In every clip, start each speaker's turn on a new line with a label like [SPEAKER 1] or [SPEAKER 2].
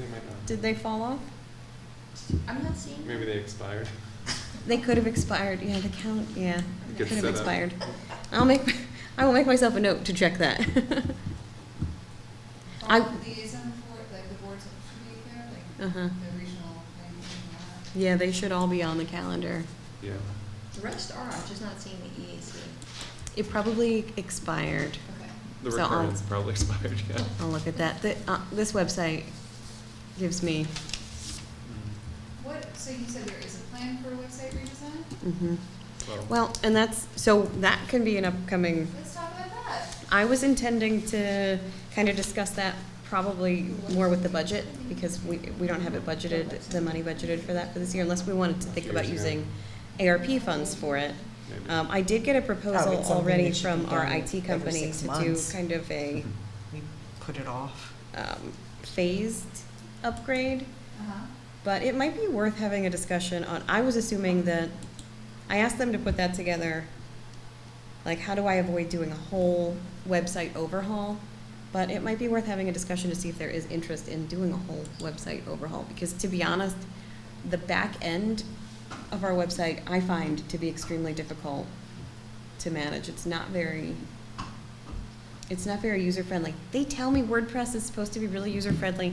[SPEAKER 1] might not.
[SPEAKER 2] Did they fall off?
[SPEAKER 3] I'm not seeing.
[SPEAKER 1] Maybe they expired.
[SPEAKER 2] They could have expired, yeah, the count, yeah,
[SPEAKER 1] It
[SPEAKER 2] could
[SPEAKER 1] gets
[SPEAKER 2] have
[SPEAKER 1] set up.
[SPEAKER 2] expired. I'll make, I will make myself a note to check that. I-
[SPEAKER 4] All the liaison for, like the boards should be there, like
[SPEAKER 2] Uh-huh.
[SPEAKER 4] the regional things and all that.
[SPEAKER 2] Yeah, they should all be on the calendar.
[SPEAKER 1] Yeah.
[SPEAKER 3] The rest are, I'm just not seeing the E EAC.
[SPEAKER 2] It probably expired.
[SPEAKER 4] Okay.
[SPEAKER 1] The
[SPEAKER 2] So I'll-
[SPEAKER 1] recurrence probably expired, yeah.
[SPEAKER 2] I'll look at that. The, uh, this website gives me, Mm-hmm.
[SPEAKER 4] What, so you said there is a plan for a website redesign?
[SPEAKER 2] mhm.
[SPEAKER 1] Well,
[SPEAKER 2] Well, and that's, so that can be an upcoming,
[SPEAKER 4] Let's talk about that.
[SPEAKER 2] I was intending to kind of discuss that probably more with the budget, because we, we don't have it budgeted, the money budgeted for that for this year, unless we wanted to think about using ARP funds for it.
[SPEAKER 1] maybe.
[SPEAKER 2] Um, I did get a
[SPEAKER 5] Oh,
[SPEAKER 2] proposal
[SPEAKER 5] it's something
[SPEAKER 2] already
[SPEAKER 5] that should
[SPEAKER 2] from
[SPEAKER 5] be
[SPEAKER 2] our
[SPEAKER 5] done
[SPEAKER 2] IT
[SPEAKER 5] every
[SPEAKER 2] company
[SPEAKER 5] six
[SPEAKER 2] to do
[SPEAKER 5] months.
[SPEAKER 2] kind of a,
[SPEAKER 5] We put it off.
[SPEAKER 2] um, phased upgrade.
[SPEAKER 4] Uh-huh.
[SPEAKER 2] But it might be worth having a discussion on, I was assuming that, I asked them to put that together, like, how do I avoid doing a whole website overhaul? But it might be worth having a discussion to see if there is interest in doing a whole website overhaul, because to be honest, the back end of our website, I find to be extremely difficult to manage. It's not very, it's not very user-friendly. They tell me WordPress is supposed to be really user-friendly,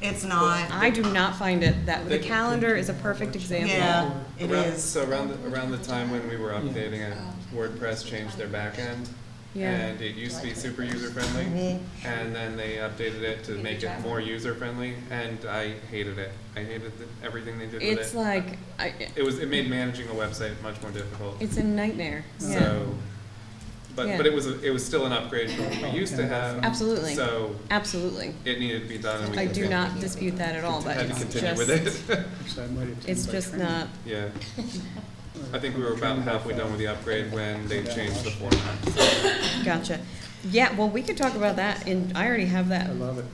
[SPEAKER 5] It's not,
[SPEAKER 2] I do not find it that,
[SPEAKER 1] They-
[SPEAKER 2] the calendar is a perfect example.
[SPEAKER 5] yeah, it
[SPEAKER 1] Around-
[SPEAKER 5] is.
[SPEAKER 1] So around, the- around the time when we were updating it, WordPress changed their backend.
[SPEAKER 2] Yeah.
[SPEAKER 1] And it used to be super user friendly.
[SPEAKER 5] Mhm.
[SPEAKER 1] And then they updated it to make it more user friendly and I hated it. I hated the- everything they did with it.
[SPEAKER 2] It's like, I,
[SPEAKER 1] It was, it made managing a website much more difficult.
[SPEAKER 2] it's a nightmare, yeah,
[SPEAKER 1] So, but,
[SPEAKER 2] Yeah.
[SPEAKER 1] but it was, a- it was still an upgrade from what we used to have.
[SPEAKER 2] Absolutely.
[SPEAKER 1] So
[SPEAKER 2] absolutely.
[SPEAKER 1] it needed to be done and we
[SPEAKER 2] I do
[SPEAKER 1] continued-
[SPEAKER 2] not dispute that at all, but
[SPEAKER 1] Had to
[SPEAKER 2] it's
[SPEAKER 1] continue with it.
[SPEAKER 2] just, it's just not,
[SPEAKER 1] Yeah, I think we were about halfway done with the upgrade when they changed the format.
[SPEAKER 2] gotcha. Yeah, well, we could talk about that in, I already have that
[SPEAKER 6] I love it.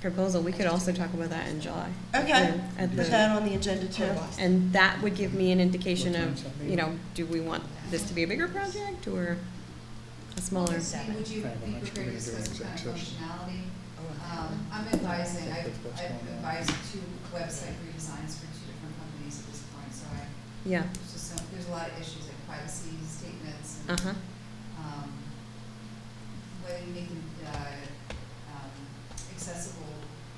[SPEAKER 2] proposal, we could also talk about that in July.
[SPEAKER 5] Okay,
[SPEAKER 2] Yeah, At
[SPEAKER 5] put
[SPEAKER 2] the,
[SPEAKER 5] that on the agenda too.
[SPEAKER 2] and that would give me an indication of, you know, do we want this to be a bigger project or a smaller?
[SPEAKER 4] So Would you
[SPEAKER 6] Right, I'm
[SPEAKER 4] be
[SPEAKER 6] actually
[SPEAKER 4] prepared to
[SPEAKER 6] gonna do
[SPEAKER 4] discuss what
[SPEAKER 6] an
[SPEAKER 4] kind of
[SPEAKER 6] executive session.
[SPEAKER 4] functionality? Um, I'm advising, I've, I've advised two website redesigns for two different companies at this point, so I,
[SPEAKER 2] Yeah,
[SPEAKER 4] there's just some, there's a lot of issues like privacy statements and
[SPEAKER 2] uh-huh,
[SPEAKER 4] um, whether you make them uh, um, accessible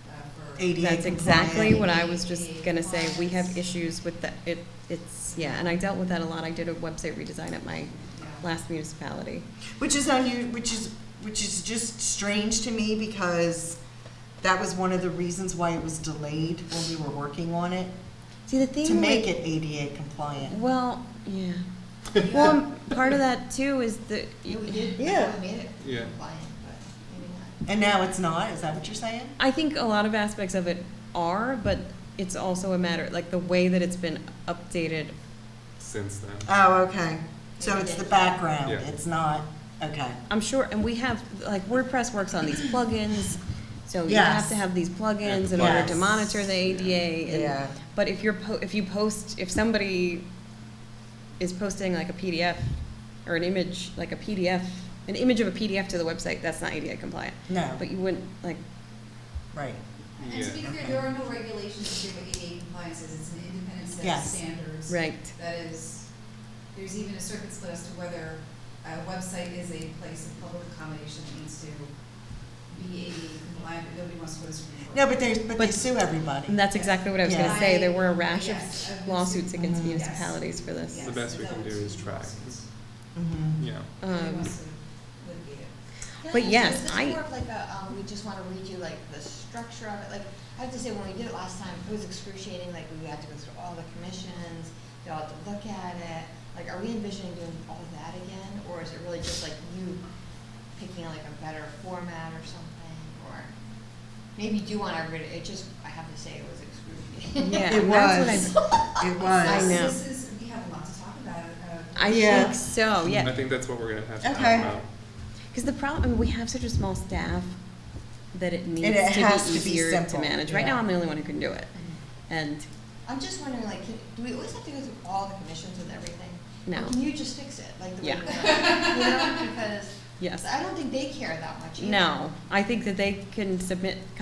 [SPEAKER 4] uh, for.
[SPEAKER 5] ADA
[SPEAKER 2] that's exactly
[SPEAKER 5] compliant.
[SPEAKER 2] what I was just gonna say, we have issues with the, it, it's, yeah, and I dealt with that a lot, I did a website redesign at my
[SPEAKER 4] Yeah.
[SPEAKER 2] last municipality.
[SPEAKER 5] Which is unu- which is which is just strange to me because that was one of the reasons why it was delayed when we were working on it
[SPEAKER 2] See, the thing
[SPEAKER 5] to make
[SPEAKER 2] with-
[SPEAKER 5] it ADA compliant.
[SPEAKER 2] well, yeah. Well, um, part of that too is the
[SPEAKER 3] Yeah, we did,
[SPEAKER 5] Yeah.
[SPEAKER 3] we made it
[SPEAKER 1] Yeah.
[SPEAKER 3] compliant, but maybe not.
[SPEAKER 5] And now it's not. Is that what you're saying?
[SPEAKER 2] I think a lot of aspects of it are, but it's also a matter like the way that it's been updated.
[SPEAKER 1] Since then,
[SPEAKER 5] Oh, okay. So it's the background.
[SPEAKER 1] Yeah.
[SPEAKER 5] It's not okay.
[SPEAKER 2] I'm sure, and we have like WordPress works on these plugins, so you
[SPEAKER 5] Yes.
[SPEAKER 2] have to have these plugins
[SPEAKER 1] the
[SPEAKER 2] in order to
[SPEAKER 5] plugins.
[SPEAKER 2] monitor the ADA. and-
[SPEAKER 5] Yeah.
[SPEAKER 2] But if you're po- if you post if somebody is posting like a PDF or an image like a PDF an image of a PDF to the website that's not ADA compliant.
[SPEAKER 5] No.
[SPEAKER 2] But you wouldn't like
[SPEAKER 5] Right.
[SPEAKER 4] And to be
[SPEAKER 1] yeah,
[SPEAKER 4] clear, there are no regulations to give what ADA compliance is, it's an independent set of
[SPEAKER 5] Yes.
[SPEAKER 4] standards.
[SPEAKER 2] right.
[SPEAKER 4] That is, there's even a circuit split as to whether a website is a place of public accommodation that needs to be ADA compliant, but nobody wants to go to the Supreme Court.
[SPEAKER 5] No, but they but they
[SPEAKER 2] But-
[SPEAKER 5] sue everybody.
[SPEAKER 2] And that's exactly what I was going to
[SPEAKER 4] Yeah.
[SPEAKER 2] say. There were a rash
[SPEAKER 4] Yes, I've
[SPEAKER 2] of
[SPEAKER 4] been
[SPEAKER 2] lawsuits
[SPEAKER 4] sued.
[SPEAKER 2] against
[SPEAKER 5] Mhm.
[SPEAKER 2] municipalities for this.
[SPEAKER 4] Yes,
[SPEAKER 1] The best we can do is try.
[SPEAKER 5] Mhm.
[SPEAKER 1] yeah.
[SPEAKER 4] Nobody
[SPEAKER 2] Um,
[SPEAKER 4] wants to litigate it.
[SPEAKER 3] Can I
[SPEAKER 2] But
[SPEAKER 3] ask you,
[SPEAKER 2] yes,
[SPEAKER 3] is this
[SPEAKER 2] I-
[SPEAKER 3] more of like a, um, we just wanna read you like the structure of it, like, I have to say, when we did it last time, it was excruciating, like, we had to go through all the commissions, they all had to look at it, like, are we envisioning doing all that again, or is it really just like you picking like a better format or something, or maybe you do wanna read it, it just, I have to say, it was excruciating.
[SPEAKER 2] yeah,
[SPEAKER 5] It
[SPEAKER 2] that's
[SPEAKER 5] was.
[SPEAKER 2] what
[SPEAKER 5] It was.
[SPEAKER 2] I know.
[SPEAKER 4] This is, we have a lot to talk about, uh.
[SPEAKER 2] I, I
[SPEAKER 5] Yeah.
[SPEAKER 2] think so.
[SPEAKER 1] I
[SPEAKER 2] Oh, Yeah,
[SPEAKER 1] think that's what we're gonna have to talk
[SPEAKER 5] Okay.
[SPEAKER 1] about.
[SPEAKER 2] because the problem I mean, we have such a small staff that it needs
[SPEAKER 5] it
[SPEAKER 2] to
[SPEAKER 5] has to
[SPEAKER 2] be
[SPEAKER 5] be
[SPEAKER 2] easier
[SPEAKER 5] simple,
[SPEAKER 2] manage. Right now,
[SPEAKER 5] yeah.
[SPEAKER 2] I'm the only one who can do it, and
[SPEAKER 3] I'm just wondering, like, can- do we always have to go through all the commissions and everything?
[SPEAKER 2] No.
[SPEAKER 3] Can you just fix it, like the way
[SPEAKER 2] Yeah.
[SPEAKER 3] we want it? You know, because
[SPEAKER 2] Yes.
[SPEAKER 3] I don't think they care that much either.
[SPEAKER 2] no, I think that they can submit